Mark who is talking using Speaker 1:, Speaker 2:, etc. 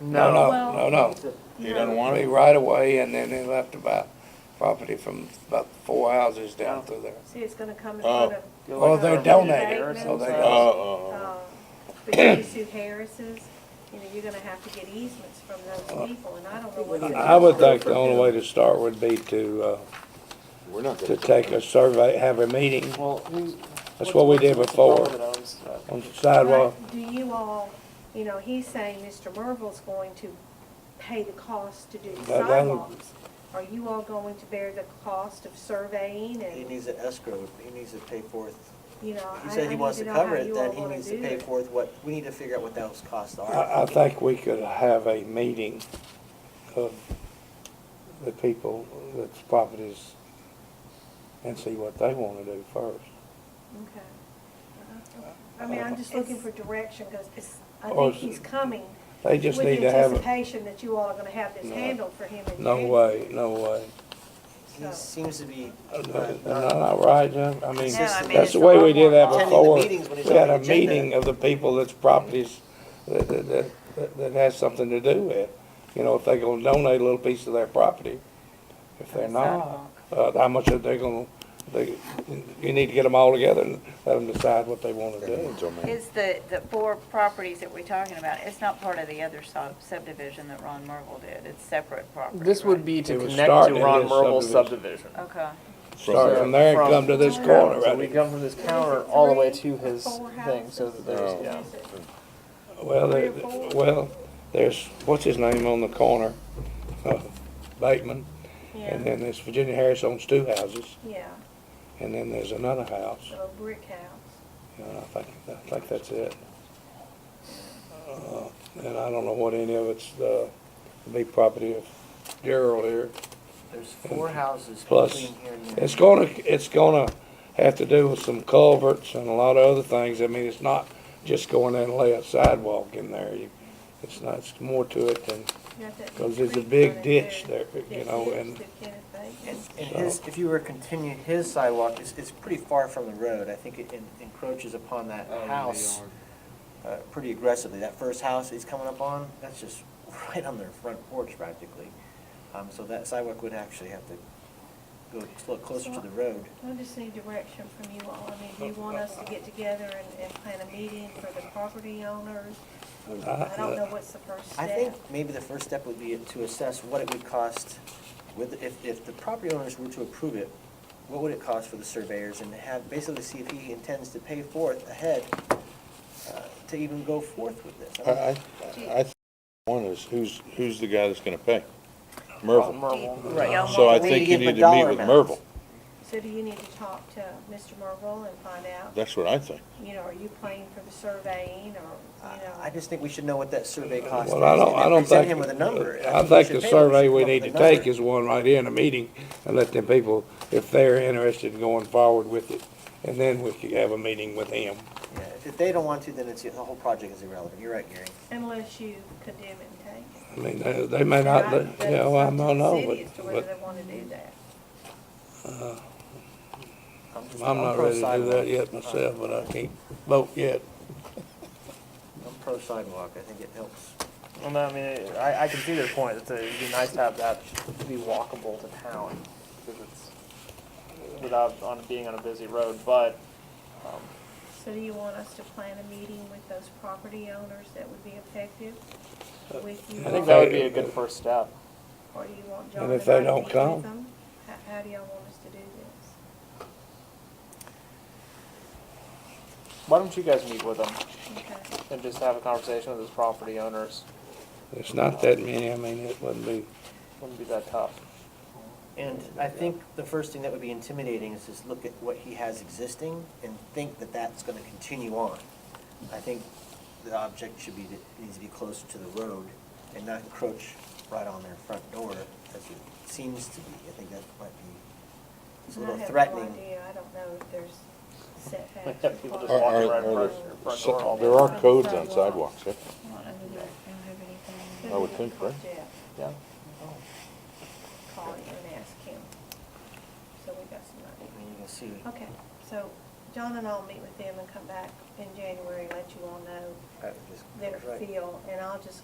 Speaker 1: No,
Speaker 2: Well-
Speaker 1: no, no, no.
Speaker 3: He doesn't want
Speaker 1: Be
Speaker 3: it?
Speaker 1: right away, and then they left about property from about four houses down through there.
Speaker 2: See, it's gonna come in
Speaker 3: Oh.
Speaker 2: front of.
Speaker 1: Well,
Speaker 2: uh,
Speaker 1: they're
Speaker 2: the
Speaker 1: donating,
Speaker 2: bank
Speaker 1: so they
Speaker 2: knows,
Speaker 1: got-
Speaker 4: Oh,
Speaker 3: Uh, uh,
Speaker 2: uh, Between Sue Harris's, you know, you're gonna have to get easements from
Speaker 4: Uh,
Speaker 2: those people, and I don't know what.
Speaker 1: I would think the only way to start would be to, uh,
Speaker 3: we're not
Speaker 1: to
Speaker 3: gonna.
Speaker 1: take a survey, have a meeting
Speaker 5: Well, who?
Speaker 1: That's what we did
Speaker 5: what's the
Speaker 1: before.
Speaker 5: fellow that owns that?
Speaker 1: on the sidewalk.
Speaker 2: But Do you all, you know, he's saying Mr. Merville's going to pay the cost to do
Speaker 1: That- that'll-
Speaker 2: sidewalks. Are you all going to bear the cost of surveying
Speaker 4: He
Speaker 2: and,
Speaker 4: needs an escrow, he needs to pay forth,
Speaker 2: you know?
Speaker 4: he
Speaker 2: I-
Speaker 4: said
Speaker 2: I
Speaker 4: he
Speaker 2: need
Speaker 4: wants to
Speaker 2: know how
Speaker 4: cover
Speaker 2: you
Speaker 4: it,
Speaker 2: all
Speaker 4: then he
Speaker 2: wanna
Speaker 4: needs to
Speaker 2: do
Speaker 4: pay
Speaker 2: it.
Speaker 4: forth what, we need to figure out what those costs
Speaker 1: I, I
Speaker 4: are.
Speaker 1: think we could have a meeting of the people, that's properties, and see what they wanna do first.
Speaker 2: Okay. I mean, I'm just looking for direction, because I
Speaker 1: Or
Speaker 2: think
Speaker 1: is-
Speaker 2: he's coming.
Speaker 1: They just need to have,
Speaker 2: With the
Speaker 1: a-
Speaker 2: anticipation that you all are gonna have this
Speaker 1: No.
Speaker 2: handled for him in
Speaker 1: no
Speaker 2: January.
Speaker 1: way, no way.
Speaker 4: He seems to be. uh,
Speaker 1: Isn't
Speaker 4: not-
Speaker 1: that not right, Jim? I mean,
Speaker 4: No, I mean,
Speaker 1: that's
Speaker 4: it's
Speaker 1: the
Speaker 4: a
Speaker 1: way
Speaker 4: lot
Speaker 1: we did that
Speaker 4: more attending the
Speaker 1: before.
Speaker 4: meetings when it's
Speaker 1: We had
Speaker 4: on
Speaker 1: a
Speaker 4: the agenda.
Speaker 1: meeting of the people that's properties that, that, that- that, that has something to do with. You know, if they're gonna donate a little piece of their property, if they're not, uh, how much are they gonna, they, you need to get them all together and let them decide what they wanna do.
Speaker 6: Is the, the four properties that we're talking about, it's not part of the other sub- subdivision that Ron Merville did, it's separate property,
Speaker 5: This would
Speaker 6: right?
Speaker 5: be to
Speaker 1: It would
Speaker 5: connect
Speaker 1: start
Speaker 5: to
Speaker 1: in
Speaker 5: Ron
Speaker 1: this
Speaker 5: Merville's
Speaker 1: subdivision.
Speaker 5: subdivision.
Speaker 6: Okay,
Speaker 1: Start from there and
Speaker 5: From-
Speaker 1: come to this
Speaker 2: Yeah,
Speaker 1: corner,
Speaker 5: So we
Speaker 1: right?
Speaker 5: come from this
Speaker 2: it
Speaker 5: counter all the way
Speaker 2: three
Speaker 5: to
Speaker 2: or
Speaker 5: his
Speaker 2: four
Speaker 5: thing, so that there's,
Speaker 1: Oh.
Speaker 2: houses?
Speaker 5: yeah.
Speaker 2: Is it-
Speaker 1: Well,
Speaker 2: Three or
Speaker 1: there-
Speaker 2: four?
Speaker 1: well, there's, what's his name on the corner? Uh, Bateman. And
Speaker 2: Yeah,
Speaker 1: then there's Virginia Harris owns two houses,
Speaker 2: yeah,
Speaker 1: and then there's another house,
Speaker 2: so brick house.
Speaker 1: and I think, I think that's it. Uh, And I don't know what any of it's, uh, the big property of Gerald here.
Speaker 4: There's four houses
Speaker 1: Plus,
Speaker 4: between here and there.
Speaker 1: It's gonna, it's gonna have to do with some culverts and a lot of other things. I mean, it's not just going in and lay a sidewalk in there. You- It's not, it's more to it than,
Speaker 2: You got that
Speaker 1: because
Speaker 2: big
Speaker 1: there's a
Speaker 2: creek
Speaker 1: big
Speaker 2: running
Speaker 1: ditch
Speaker 2: through
Speaker 1: there, you
Speaker 2: that
Speaker 1: know,
Speaker 2: ditch
Speaker 1: and
Speaker 2: that Kenneth Bates-
Speaker 4: And, and his, if you were to continue his sidewalk, it's, it's pretty far from the road. I think it en- encroaches upon that house uh, pretty aggressively. That first house he's coming up on, that's just right on their front porch practically. Um, so that sidewalk would actually have to go a little closer to the road.
Speaker 2: I just need direction from you all. I mean, do you want us to get together and, and plan a meeting for the property owners? I don't know what's the first
Speaker 4: I
Speaker 2: step.
Speaker 4: think maybe the first step would be to assess what it would cost with, if, if the property owners were to approve it, what would it cost for the surveyors and have, basically see if he intends to pay forth ahead uh, to even go forth with this.
Speaker 3: I,
Speaker 4: I mean,
Speaker 3: I, I think one is, who's, who's the guy that's gonna pay? Merville.
Speaker 6: Do
Speaker 4: Right.
Speaker 6: y'all
Speaker 3: So I
Speaker 6: want-
Speaker 4: We need to
Speaker 3: think you
Speaker 4: give him a
Speaker 3: need to meet
Speaker 4: dollar
Speaker 3: with
Speaker 4: amount.
Speaker 3: Merville.
Speaker 2: So do you need to talk to Mr. Merville and find out,
Speaker 3: That's what I think.
Speaker 2: you know, are you playing for the surveying or,
Speaker 4: I-
Speaker 2: you know?
Speaker 4: I just think we should know what that survey cost.
Speaker 1: Well, I
Speaker 4: is,
Speaker 1: don't,
Speaker 4: and
Speaker 1: I
Speaker 4: then
Speaker 1: don't
Speaker 4: Present
Speaker 1: think.
Speaker 4: him with a number.
Speaker 1: I
Speaker 4: we
Speaker 1: think
Speaker 4: should
Speaker 1: the
Speaker 4: pay him.
Speaker 1: survey
Speaker 4: should
Speaker 1: we
Speaker 4: come up
Speaker 1: need to
Speaker 4: with a number.
Speaker 1: take is one right here in a meeting and let them people, if they're interested in going forward with it, and then we could have a meeting with him.
Speaker 4: Yeah, If they don't want to, then it's, the whole project is irrelevant. You're right, Gary.
Speaker 2: Unless you condemn it and take it.
Speaker 1: I mean, they, they may not,
Speaker 2: Right,
Speaker 1: you know, I
Speaker 2: that's up
Speaker 1: don't
Speaker 2: to the
Speaker 1: know,
Speaker 2: city as to
Speaker 1: but,
Speaker 2: whether
Speaker 1: but
Speaker 2: they want to do that.
Speaker 4: just-
Speaker 1: I'm not
Speaker 4: pro
Speaker 1: ready to do
Speaker 4: sidewalk.
Speaker 1: that yet myself, but I can't vote yet.
Speaker 4: I'm pro sidewalk. I think it helps.
Speaker 5: Well, no, I mean, it- I, I can see their point, it's, a- it'd be nice to have that be walkable to town, because it's, without, on, being on a busy road, but, um,
Speaker 2: So do you want us to plan a meeting with those property owners that would be effective with you?
Speaker 5: I think
Speaker 2: all?
Speaker 5: that would be a good first step.
Speaker 2: Or do you want John
Speaker 1: And
Speaker 2: to
Speaker 1: if they
Speaker 2: not
Speaker 1: don't
Speaker 2: meet with
Speaker 1: come?
Speaker 2: them? How, how do y'all want us to do this?
Speaker 5: Why don't you guys meet with them
Speaker 2: Okay,
Speaker 5: and just have a conversation with those property owners?
Speaker 1: It's not that many, I mean, it wouldn't be,
Speaker 5: Wouldn't be that tough.
Speaker 4: And I think the first thing that would be intimidating is just look at what he has existing and think that that's gonna continue on. I think the object should be, needs to be closer to the road and not encroach right on their front door as it seems to be. I think that might be, it's a
Speaker 2: And
Speaker 4: little
Speaker 2: I have no
Speaker 4: threatening.
Speaker 2: idea, I don't know if there's setbacks.
Speaker 5: Have people just
Speaker 3: Are-
Speaker 5: walking
Speaker 3: are-
Speaker 5: around
Speaker 3: are
Speaker 5: your
Speaker 3: there-
Speaker 5: front door all
Speaker 3: There
Speaker 5: day.
Speaker 3: are codes on sidewalks, eh? I would think, right?
Speaker 5: Yeah.
Speaker 2: Call him and ask him. So we got some
Speaker 4: I
Speaker 2: idea.
Speaker 4: mean, you can see,
Speaker 2: Okay, so John and I'll meet with them and come back in January, and let you all know
Speaker 4: that just
Speaker 2: their
Speaker 4: right.
Speaker 2: feel, and I'll just